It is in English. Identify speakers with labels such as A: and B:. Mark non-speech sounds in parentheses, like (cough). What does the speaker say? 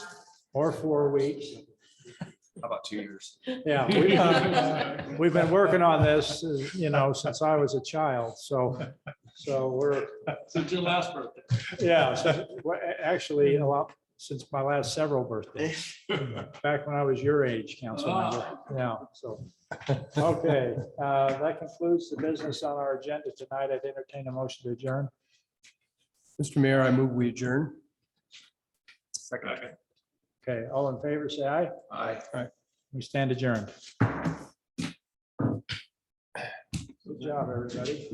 A: or four weeks.
B: How about two years?
A: Yeah. (laughs) we, uh, We've been working on this, uh, you know, since I was a child, so, so we're,
C: Since your last birthday.
A: yeah, so, well, a- actually, a lot, since my last several birthdays. Back when I was your age, council member, yeah, so. Okay, uh, that concludes the business on our agenda tonight. I'd entertain a motion to adjourn.
D: Mr. Mayor, I move we adjourn.
B: Second.
A: Okay, all in favor, say aye.
B: Aye.
A: We stand adjourned. Good job, everybody.